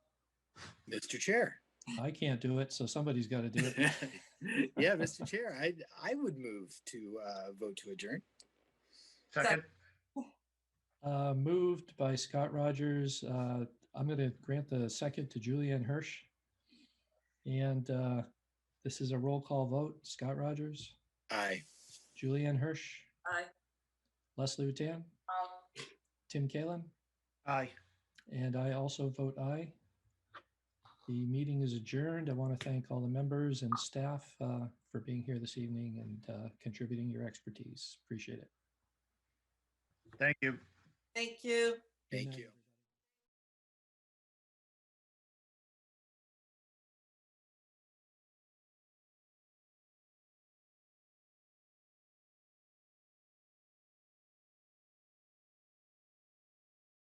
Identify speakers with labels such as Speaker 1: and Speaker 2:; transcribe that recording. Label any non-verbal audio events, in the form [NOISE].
Speaker 1: Mr. Chair.
Speaker 2: I can't do it, so somebody's got to do it.
Speaker 1: [LAUGHS] Yeah, Mr. Chair, I, I would move to uh, vote to adjourn.
Speaker 3: Second,
Speaker 2: Uh, Moved by Scott Rogers. Uh, I'm going to grant the second to Julianne Hirsch. And uh, this is a roll call vote. Scott Rogers,
Speaker 1: Aye.
Speaker 2: Julianne Hirsch,
Speaker 4: Aye.
Speaker 2: Leslie Rutan, Tim Kalen,
Speaker 3: aye.
Speaker 2: and I also vote aye. The meeting is adjourned. I want to thank all the members and staff uh, for being here this evening and uh, contributing your expertise. Appreciate it.
Speaker 3: Thank you.
Speaker 4: Thank you.
Speaker 1: Thank
Speaker 2: night.
Speaker 1: you.